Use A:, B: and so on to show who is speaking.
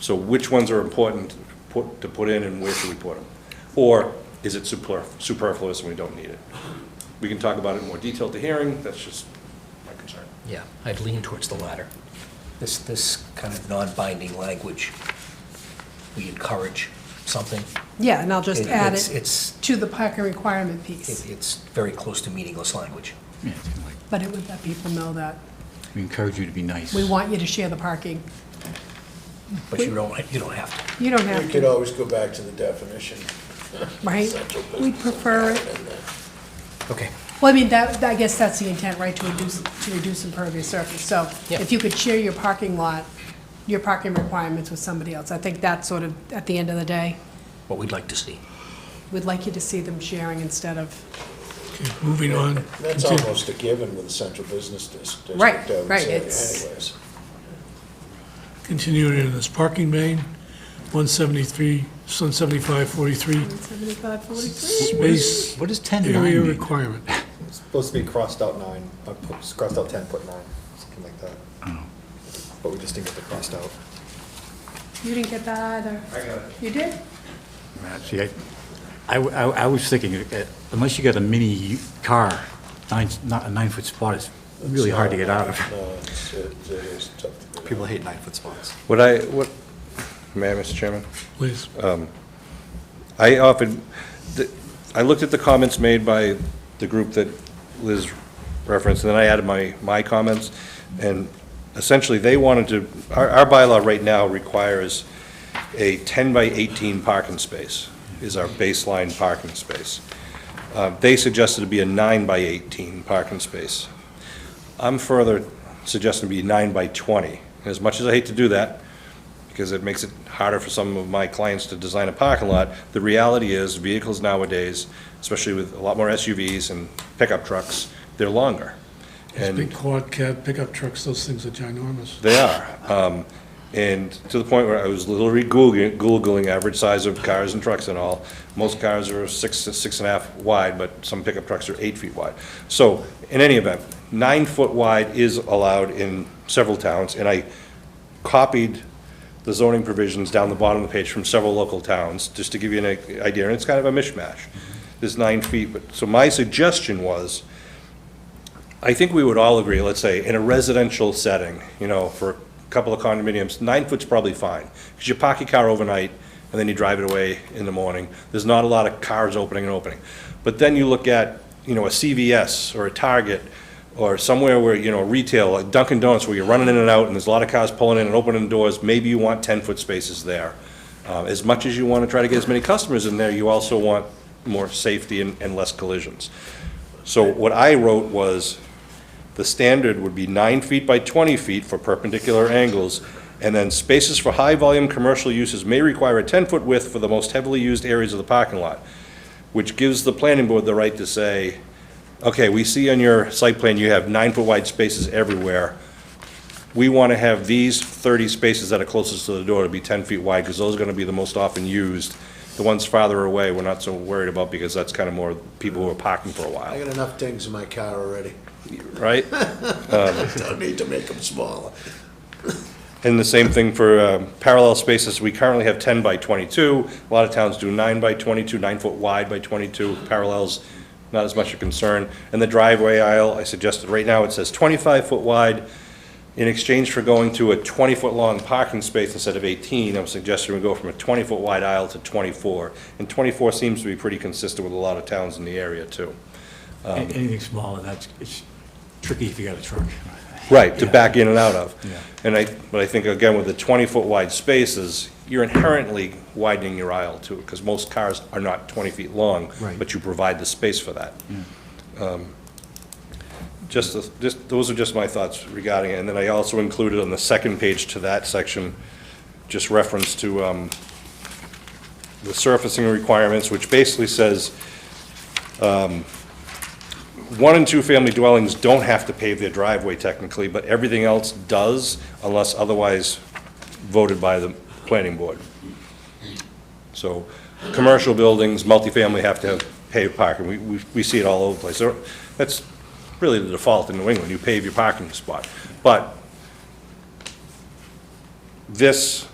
A: So which ones are important to put, to put in and where should we put them? Or is it super- superfluous and we don't need it? We can talk about it in more detail at the hearing, that's just my concern.
B: Yeah, I'd lean towards the latter. This, this kind of non-binding language, we encourage something.
C: Yeah, and I'll just add
B: it's-
C: it
B: It's,
C: to the parking requirement
B: it-
C: piece,
B: it's very close to meaningless language.
D: Yeah, it's kinda like,
C: but it would let people know that
D: we encourage you to be nice.
C: we want you to share the parking.
B: But you don't, you don't have to.
C: You don't
E: We
C: have
E: could
C: to,
E: always go back to the definition.
C: right? We prefer it.
B: Okay.
C: Well, I mean, that, I guess that's the intent, right, to reduce, to reduce impervious surface. So
B: Yeah.
C: if you could share your parking lot, your parking requirements with somebody else, I think that's sort of, at the end of the day,
B: What we'd like to see.
C: we'd like you to see them sharing instead of,
F: Moving on.
E: That's almost a given with the central business dis- district.
C: Right,
E: I would
C: right,
E: say
C: it's-
E: Anyways,
F: Continuing in this parking main, 173, 175, 43,
C: 175.43.
D: What is-
F: space
D: What does 10
F: area
D: nine mean?
F: requirement.
G: Supposed to be crossed out nine, uh, p- crossed out ten, put nine, something like that. But we just didn't get the crossed out.
C: You didn't get that either. I got it. You did?
D: See, I, I, I- I was thinking, uh, unless you got a mini u- car, nine, not a nine-foot spot is really hard to get out of.
E: no, it's, it it is tough to do.
G: People hate nine-foot spots.
A: What I, what, may I, Mr. Chairman?
F: Please.
A: I often, the- I looked at the comments made by the group that Liz referenced, and then I added my, my comments, and essentially, they wanted to, our, our bylaw right now requires a 10 by 18 parking space is our baseline parking space. Uh, They suggested it be a 9 by 18 parking space. I'm further suggesting it be 9 by 20. And As much as I hate to do that, because it makes it harder for some of my clients to design a parking lot. The reality is, vehicles nowadays, especially with a lot more SUVs and pickup trucks, they're longer.
F: Those
A: And
F: big quad cab pickup trucks, those things are ginormous.
A: they are. Um, And to the point where I was literally Googling, Googling average size of cars and trucks and all. Most cars are six, six and a half wide, but some pickup trucks are eight feet wide. So in any event, nine foot wide is allowed in several towns. And I copied the zoning provisions down the bottom of the page from several local towns, just to give you an idea. And it's kind of a mishmash. There's nine feet, but, so my suggestion was, I think we would all agree, let's say, in a residential setting, you know, for a couple of condominiums, nine foot's probably fine. Because you park your car overnight, and then you drive it away in the morning. There's not a lot of cars opening and opening. But then you look at, you know, a CVS or a Target, or somewhere where, you know, retail, like Dunkin' Donuts, where you're running in and out, and there's a lot of cars pulling in and opening doors, maybe you want ten-foot spaces there. Uh, As much as you want to try to get as many customers in there, you also want more safety and, and less collisions. So what I wrote was, the standard would be nine feet by 20 feet for perpendicular angles, and then spaces for high-volume commercial uses may require a 10-foot width for the most heavily used areas of the parking lot, which gives the planning board the right to say, okay, we see on your site plan you have nine-foot wide spaces everywhere. We want to have these 30 spaces that are closest to the door to be 10 feet wide, because those are going to be the most often used. The ones farther away, we're not so worried about, because that's kind of more people who are parking for a
E: I
A: while,
E: got enough dings in my car already.
A: right?
E: Don't need to make them smaller.
A: And the same thing for um, parallel spaces, we currently have 10 by 22. A lot of towns do 9 by 22, 9-foot wide by 22, parallels, not as much a concern. And the driveway aisle, I suggested, right now it says 25-foot wide. In exchange for going to a 20-foot-long parking space instead of 18, I'm suggesting we go from a 20-foot wide aisle to 24. And 24 seems to be pretty consistent with a lot of towns in the area, too. Um,
D: An- Anything smaller, that's, it's tricky if you got a truck.
A: Right, to back in and out of.
D: Yeah.
A: And I, but I think, again, with the 20-foot wide spaces, you're inherently widening your aisle too, because most cars are not 20 feet long.
D: Right.
A: But you provide the space for that. Um, Just, the- just, those are just my thoughts regarding it. And then I also included on the second page to that section, just reference to um, the surfacing requirements, which basically says, um, one and two-family dwellings don't have to pave their driveway technically, but everything else does unless otherwise voted by the planning board. So, commercial buildings, multifamily have to have paved parking. We, we, we see it all over the place. So, That's really the default in New England, you pave your parking spot. But this